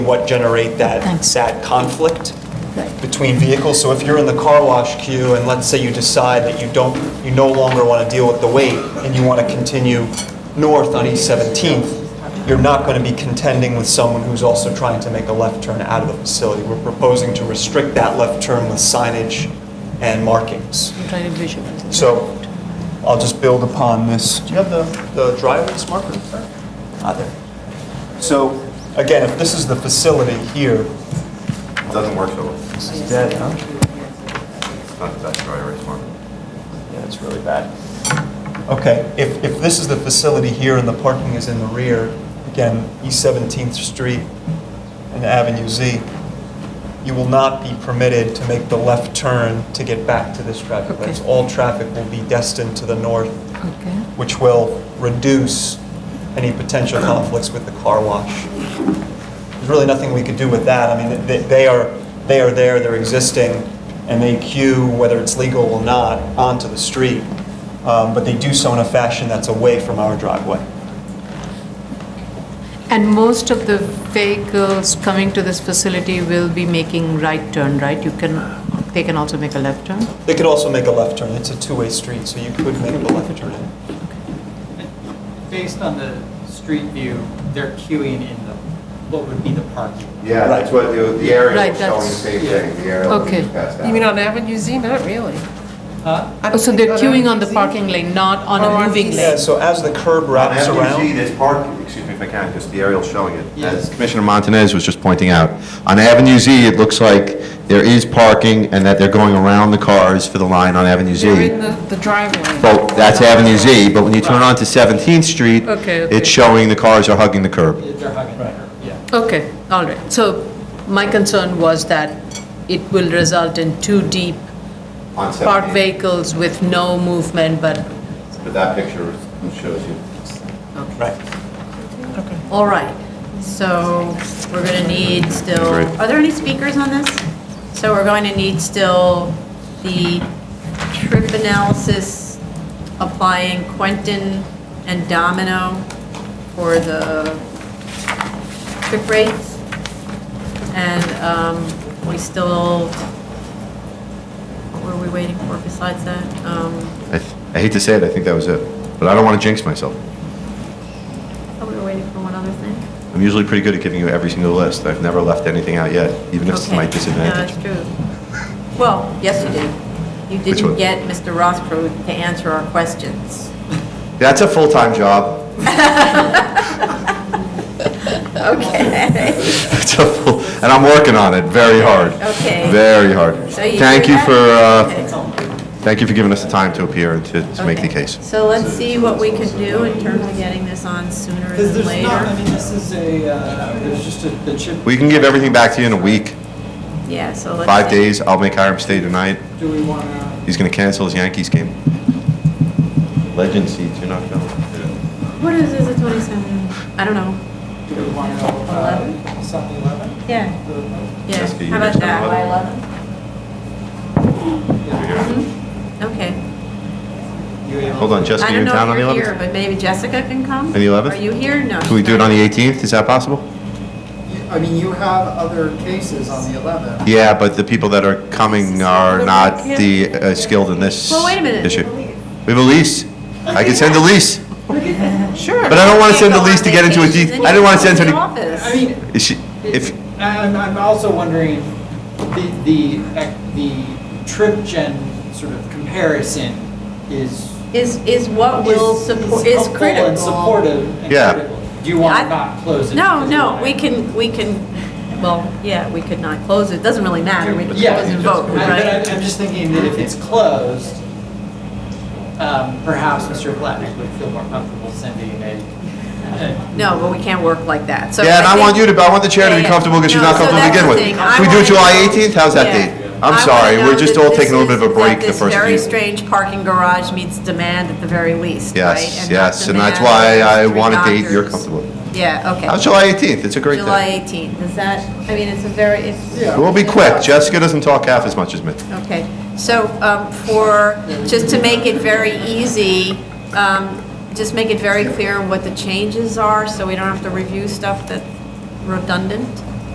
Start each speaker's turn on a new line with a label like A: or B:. A: what generate that
B: Thanks.
A: sad conflict
B: Right.
A: between vehicles. So if you're in the car wash queue and let's say you decide that you don't, you no longer want to deal with the wait and you want to continue north on East 17th, you're not going to be contending with someone who's also trying to make a left turn out of the facility. We're proposing to restrict that left turn with signage and markings.
B: I'm trying to visualize. it.
A: So I'll just build upon this. Do you have the, the driver's marker? Ah, there. So again, if this is the facility here.
C: Doesn't work so well. It's
A: This is dead, huh?
C: not the best driver, it's more.
A: Yeah, it's really bad. Okay, if, if this is the facility here and the parking is in the rear, again, East 17th Street and Avenue Z, you will not be permitted to make the left turn to get back to this traffic.
B: Okay.
A: That's all traffic will be destined to the north,
B: Okay,
A: which will reduce any potential conflicts with the car wash. There's really nothing we could do with that. I mean, they, they are, they are there, they're existing, and they queue, whether it's legal or not, onto the street. Um, but they do so in a fashion that's away from our driveway.
B: and most of the vehicles coming to this facility will be making right turn, right? You can, they can also make a left turn?
A: They could also make a left turn. It's a two-way street, so you could make the left turn.
D: Based on the street view, they're queuing in the, what would be the parking.
C: Yeah, that's what, the the area
B: Right,
C: was showing the
B: that's-
C: same thing, the area was
B: Okay.
C: just passed out.
E: You mean on Avenue Z? Not really.
D: Huh?
E: I
B: Oh,
E: don't
B: So
E: think
B: they're queuing on
E: Avenue
B: the
E: Z.
B: parking lane, not on
E: Or
B: a
E: on
B: moving
E: PC.
A: Yeah,
B: lane?
A: so as the curb
C: On
A: wraps
C: Avenue Z,
A: around,
C: there's parking, excuse me if I can, because the aerial's showing it.
D: Yes.
C: As Commissioner Montanez was just pointing out, on Avenue Z, it looks like there is parking and that they're going around the cars for the line on Avenue Z.
E: They're in the the driveway.
C: Well, that's Avenue Z, but when you turn
D: Right.
C: onto 17th Street,
B: Okay, okay.
C: it's showing the cars are hugging the curb.
D: They're hugging the curb, yeah.
B: Okay, all right. So my concern was that it will result in too deep
C: On
B: parked vehicles with no movement, but,
C: But that picture shows you.
A: right.
B: all right. So,
F: We're going to need still,
C: Great.
F: are there any speakers on this? So we're going to need still the trip analysis applying Quentin and Domino for the trip rates. And um, we still, what were we waiting for besides that? Um,
C: I th- I hate to say it, I think that was it, but I don't want to jinx myself.
F: Oh, we were waiting for one other thing?
C: I'm usually pretty good at giving you every single list. I've never left anything out yet, even if it's to my
F: Okay.
C: disadvantage.
F: No, that's true. Well, yes, you did. You
C: Which
F: didn't
C: one?
F: get Mr. Rothschild to answer our questions.
C: That's a full-time job.
F: Okay.
C: It's a full, and I'm working on it very hard.
F: Okay.
C: Very hard.
F: So you
C: Thank
F: hear
C: you
F: that?
C: for, uh,
F: Okay.
C: thank you for giving us the time to appear and to to make the
F: Okay.
C: case.
F: So let's see what we can do in terms of getting this on sooner
D: Because
F: than
D: there's not, I
F: later.
D: mean, this is a, uh, there's just a, the chip.
C: We can give everything back to you in a week,
F: Yeah, so let's.
C: five
F: see.
C: days. I'll make Hiram stay tonight.
D: Do we want to,
C: He's going to cancel his Yankees game. Legend seats, you're not going.
F: What is, is it 27? I don't know.
D: do we want to,
F: Eleven?
D: uh, seven eleven?
F: Yeah, yeah.
C: Jessica, you
F: How about
C: next on
F: that?
C: eleven. By
F: Okay.
C: Hold on,
F: I
C: Jessica, you're
F: don't
C: in
F: know
C: town on
F: if
C: Mm-hmm. the
F: you're here,
C: 11th?
F: but maybe Jessica can come?
C: On the 11th?
F: Are you here? No.
C: Can we
F: she's
C: do it
F: not
C: on the 18th? Is that possible?
D: I mean, you have other cases on the eleven.
C: Yeah, but the people that are coming are not the uh, skilled in this issue.
F: Well, wait a minute.
C: We have a lease. I can send a lease.
E: Sure.
C: But I don't want to
F: Can't
C: send
F: go
C: the
F: on
C: lease to get into a
F: vacation,
C: de-
F: then
C: I
F: you
C: didn't want to
F: come
C: send
F: the
C: any,
F: office.
D: I mean,
C: is she, if,
D: I'm, I'm also wondering, the, the, ec- the trip gen sort of comparison is.
F: Is, is what will support, is
D: helpful
F: critical.
D: And supportive and
C: Yeah.
D: critical. Do you want
F: I-
D: to not close it?
F: No,
D: because
F: no,
D: why?
F: we can, we can, well, yeah, we could not close it, doesn't really matter, we can
D: Yeah.
F: close and vote,
D: I- But I'm,
F: right?
D: I'm just thinking that if it's closed, um, perhaps Mr. Blatnick would feel more comfortable sending a, a-
F: No, but we can't work like that, so.
C: yeah, and I want you
F: think-
C: to, I want the chair to be
F: Yeah, yeah.
C: comfortable because she's
F: No,
C: not
F: so
C: comfortable
F: that's
C: to begin
F: the thing.
C: with.
F: I
C: Can we do
F: wanna
C: it July
F: know-
C: 18th? How's that
F: Yeah.
C: date?
F: I
C: I'm
F: wanna
C: sorry,
F: know
C: we're just
F: that
C: all
F: this
C: taking a little bit of a
F: is-
C: break
F: that
C: the first
F: this very
C: few.
F: strange parking garage meets demand at the very least, right?
C: Yes,
F: not
C: yes, and that's
F: demand
C: why I
F: through
C: want a date you're
F: doctors.
C: comfortable. with.
F: Yeah, okay.
C: How's July 18th? It's a great
F: July
C: day.
F: 18th, is that, I mean, it's a very, it's.
C: We'll be quick. Jessica doesn't talk half as much as me.
F: Okay, so um, for, just to make it very easy, um, just make it very clear what the changes are, so we don't have to review stuff that's redundant.